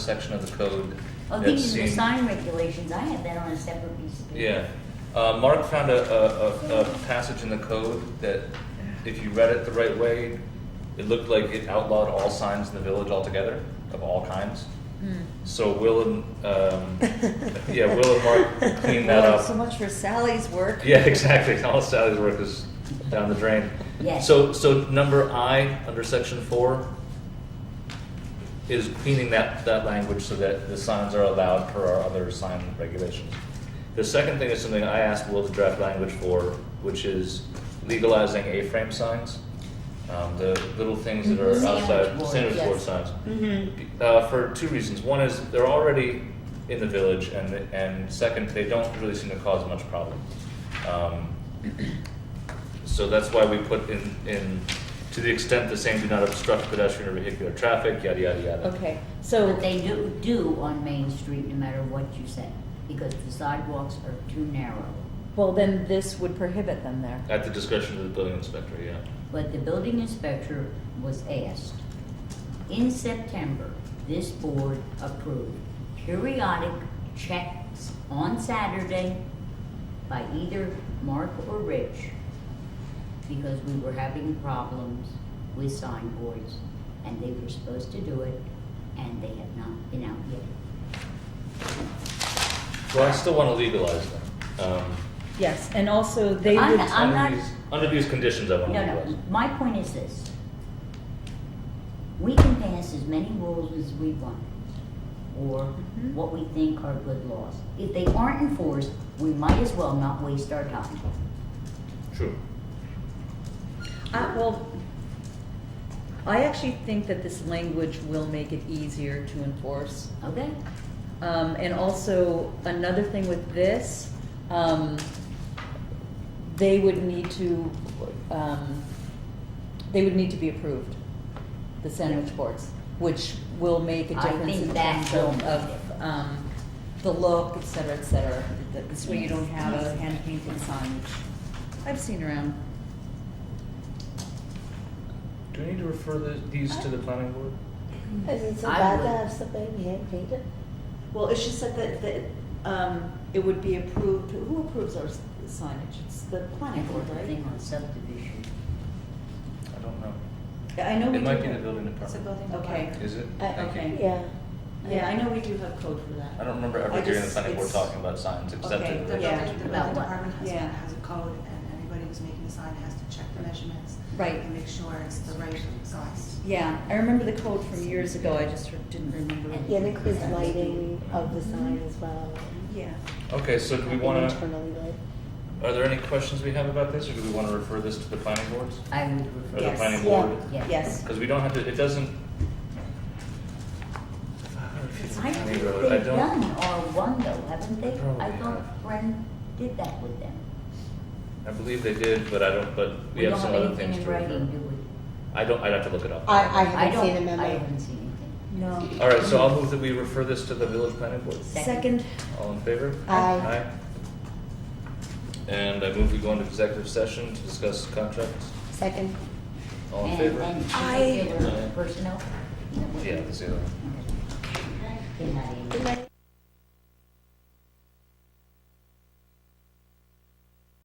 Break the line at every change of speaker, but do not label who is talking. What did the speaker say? section of the code.
Oh,
that's
these are the
seen-
sign regulations, I have that on a separate piece of paper.
Yeah. Uh, Mark found a, a, a, a passage in the code that, if you read it the right way, it looked like it outlawed all signs in the village altogether, of all kinds. So Will and, um, yeah, Will and Mark cleaned that
Well,
up.
So much for Sally's work.
Yeah, exactly. All Sally's work is down the drain.
Yes.
So, so number I under section four is cleaning that, that language so that the signs are allowed per our other sign regulations. The second thing is something I asked Will to draft language for, which is legalizing A-frame signs. Um, the little things that are
Mhm.
outside,
Sandwich board,
sandwich board
yes.
signs
Mm-hmm.
uh, for two reasons. One is they're already in the village, and and second, they don't really seem to cause much problem. Um, so that's why we put in in to the extent the same do not obstruct pedestrian or vehicular traffic, yada yada yada.
Okay,
But
so,
they do, do on Main Street, no matter what you say, because the sidewalks are too narrow.
well, then this would prohibit them there.
At the discretion of the building inspector, yeah.
But the building inspector was asked, in September, this board approved periodic checks on Saturday by either Mark or Rich, because we were having problems with sign boards, and they were supposed to do it, and they have not been out yet.
Well, I still want to legalize them. Um,
Yes, and also they
I'm-
would,
I'm-
under
not-
these under these conditions, I want to
No,
legalize.
no,
them.
my point is this. We can pass as many rules as we want, or
Mm-hmm.
Mhm.
what we think are good laws. If they aren't enforced, we might as well not waste our time.
True.
I, well, I actually think that this language will make it easier to enforce.
Okay?
Um, and also, another thing with this, um, they would need to, um, they would need to be approved, the sandwich boards, which will make a
I
difference
think
in
that
terms
will
of,
make
of, um, the look, et cetera, et cetera. Th- This way you don't have a hand painted sign, which I've seen around.
Do we need to refer the, these to the planning board?
Is it so
I
bad
would-
to have something hand painted?
Well, it's just that, that, that, um, it would be approved, who approves our s- signage? It's the
I
planning board,
think the
right?
thing on subdivision.
I don't know.
I know we
It
do.
might be the
have-
building department.
Okay,
Is it?
I-
Thank you.
okay.
Yeah.
yeah, I know we do have code for
I
that.
don't remember ever
I
hearing the
just-
planning board
it's-
talking about signs except
okay,
in the
the-
original.
yeah.
The
About
building
what?
department has,
Yeah.
has a code, and anybody who's making a sign has to check the measurements.
Right.
And make sure it's the right size.
Yeah, I remember the code from years ago, I just didn't remember.
Yeah, it includes lighting of the sign as well.
Yeah.
Okay, so do we want to,
Internally lit.
are there any questions we have about this, or do we want to refer this to the planning boards?
I would
Or
refer.
the
Yes.
planning
Yeah.
board?
Yeah.
Yes.
Because we don't have to, it doesn't.
I think
Maybe I
they've
don't-
done R one though, haven't they?
Probably
I
have.
thought Bren did that with them.
I believe they did, but I don't, but we have some other things to
We don't have anything in
refer.
writing, do we?
I don't, I'd have to look it up.
I, I
I
haven't seen a
don't, I
memo.
haven't seen anything.
No.
All right, so I'll move that we refer this to the village planning board.
Second,
All in favor?
Aye.
And I move we go into executive session to discuss contracts.
Second.
All in
And-
favor?
And
Aye.
particular personnel?
Yeah, let's do that.
Okay. Good night, Amy.
Good night.